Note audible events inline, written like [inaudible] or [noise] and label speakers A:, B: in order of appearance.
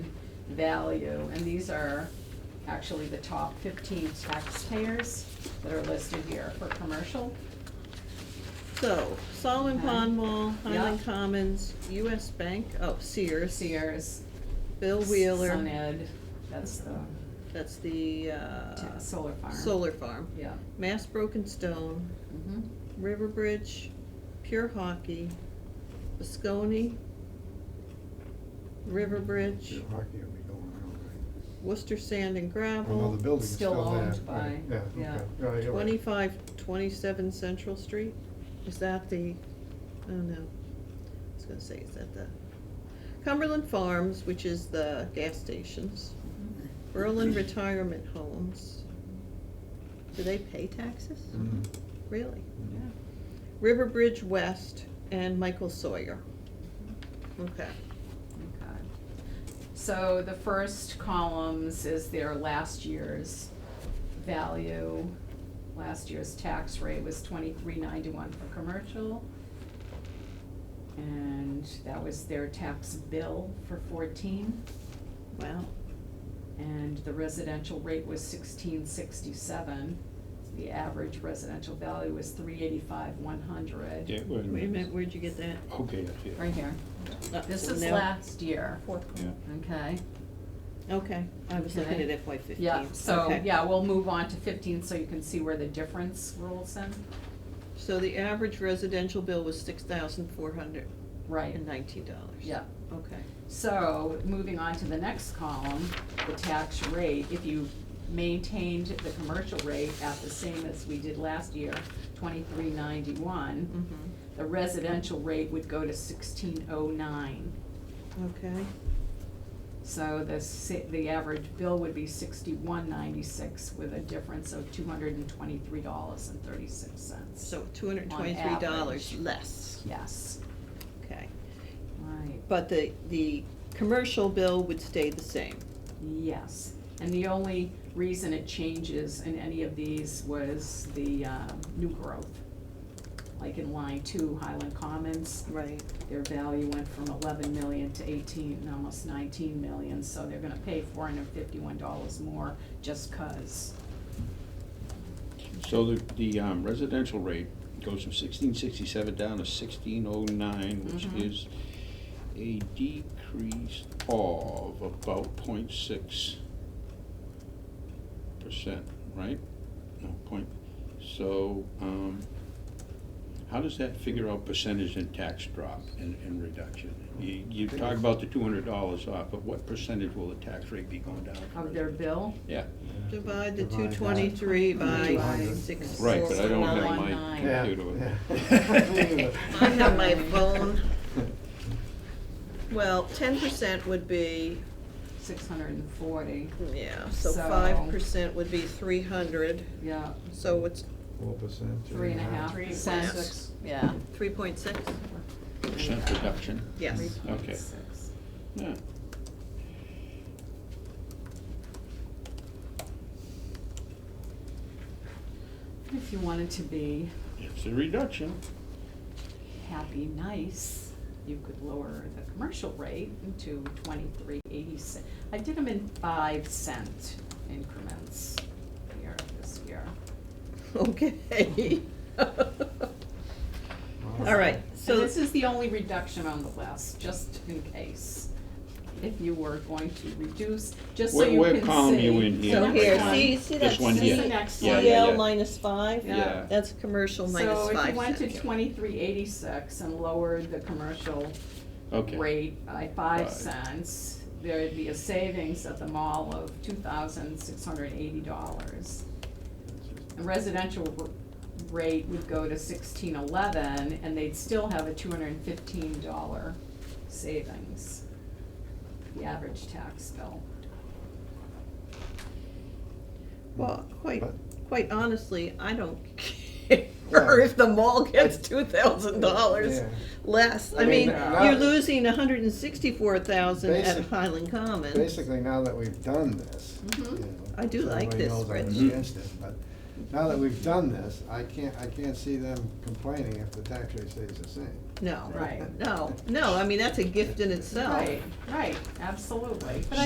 A: value, and these are actually the top fifteen taxpayers that are listed here for commercial.
B: So, Solomon
A: Okay.
B: Pond Mall, Highland
A: Yeah.
B: Commons, US Bank, oh, Sears.
A: Sears,
B: Bill
A: Sun
B: Wheeler,
A: Ed, that's the
B: that's the, uh,
A: ta- solar farm.
B: solar farm.
A: Yeah.
B: Mass Broken Stone,
A: Mhm.
B: Riverbridge, Pure Hockey, Biscone, Riverbridge,
C: Pure hockey will be going around, right?
B: Worcester Sand and
C: Although the
B: Gravel,
C: building's
A: Still
C: still there.
A: owned
C: right,
A: by- yeah.
C: okay. Yeah, Oh, you're right.
B: twenty-five, twenty-seven Central Street. Is that the, oh no, I was gonna say, is that the Cumberland Farms, which is the gas stations,
A: Mhm.
C: [clears throat]
B: Berlin Retirement Homes. Do they pay taxes?
C: Mhm.
B: Really?
A: Yeah.
B: Riverbridge West and Michael Sawyer. Okay.
A: Okay. So the first columns is their last year's value. Last year's tax rate was twenty-three ninety-one for commercial. And that was their tax bill for fourteen,
B: Wow.
A: and the residential rate was sixteen sixty-seven. The average residential value was three eighty-five one hundred.
D: Yeah, wait a
B: Wait a
D: minute.
B: minute, where'd you get that?
D: Okay, I see it.
A: Right here.
B: Uh,
A: This
B: so
A: is
B: now-
A: last year,
D: Yeah.
A: okay?
B: Okay, I was looking
A: Okay.
B: at FY fifteen.
A: Yeah, so,
B: Okay.
A: yeah, we'll move on to fifteen, so you can see where the difference rolls in.
B: So the average residential bill was six thousand four hundred
A: Right,
B: and nineteen dollars.
A: yeah.
B: Okay.
A: So, moving on to the next column, the tax rate, if you maintained the commercial rate at the same as we did last year, twenty-three ninety-one,
B: Mm-hmm.
A: the residential rate would go to sixteen oh nine.
B: Okay,
A: So the si- the average bill would be sixty-one ninety-six with a difference of two hundred and twenty-three dollars and thirty-six cents.
B: so two hundred and
A: On
B: twenty-three dollars
A: average.
B: less.
A: Yes,
B: Okay,
A: right.
B: but the, the commercial bill would stay the same.
A: Yes, and the only reason it changes in any of these was the um, new growth. Like in line two, Highland Commons,
B: Right.
A: their value went from eleven million to eighteen, and almost nineteen million, so they're gonna pay four hundred fifty-one dollars more just 'cause.
D: So the, the um, residential rate goes from sixteen sixty-seven down to sixteen oh nine, which
A: Mhm.
D: is a decrease of about point six percent, right? No, point, so, um, how does that figure out percentage in tax drop and, and reduction? You, you talk about the two hundred dollars off, but what percentage will the tax rate be going down? for
A: Of their
D: residential?
A: bill,
D: Yeah,
B: Divide the two
C: Divide that.
B: twenty-three by
C: 200.
B: six.
D: right, but I don't have
A: One
D: my
A: nine.
C: Yeah,
D: computer with me.
C: yeah. [laughs]
B: I have [laughs] my phone. Well, ten percent would be,
A: six hundred and forty,
B: yeah, so
A: So-
B: five percent would be three hundred,
A: yeah,
B: so it's
C: Four percent.
A: three and a half
B: Three
A: percent,
B: six.
A: yeah.
B: three point six?
D: Percent reduction?
A: Three
B: Yes.
A: point
D: Okay.
A: six.
D: Yeah.
A: If you wanted to be
D: It's a reduction.
A: happy, nice, you could lower the commercial rate to twenty-three eighty-six. I did them in five cent increments here this year.
B: [laughs] Okay. [laughs] All right,
A: So
B: so,
A: this is the only reduction on the list, just in case, if you were going to reduce, just so
D: Where-
A: you
D: where
A: can see.
D: column you in here?
B: so
D: Yeah.
B: here,
D: Next
B: see,
D: one.
B: see that
D: This one
A: here.
B: C-
A: Next one. Yeah, yeah,
B: CL
D: yeah.
B: minus five?
A: Yeah.
D: Yeah.
B: That's commercial minus
A: So if
B: five
A: you went to
B: cents.
A: twenty-three eighty-six and lowered the commercial
D: Okay.
A: rate by five
D: Five.
A: cents, there'd be a savings at the mall of two thousand six hundred eighty dollars. The residential r- rate would go to sixteen eleven, and they'd still have a two hundred and fifteen dollar savings, the average tax bill.
B: Well, quite,
C: But-
B: quite honestly, I don't [laughs] care if the mall gets two thousand dollars
C: Yeah.
B: less. I
C: I
B: mean,
C: mean, that-
B: you're losing a hundred and sixty-four thousand at
C: Basic-
B: Highland Commons.
C: Basically, now that we've done this. you
A: Mhm.
C: know,
B: Mm-hmm. I do
C: so
B: like
C: everybody
B: this
C: knows I'm
D: spreadsheet.
C: against it, but now that we've done this, I can't, I can't see them complaining if the tax rate stays the same.
B: No,
A: Right.
B: no, no, I mean, that's a gift in itself.
A: Right, right, absolutely, but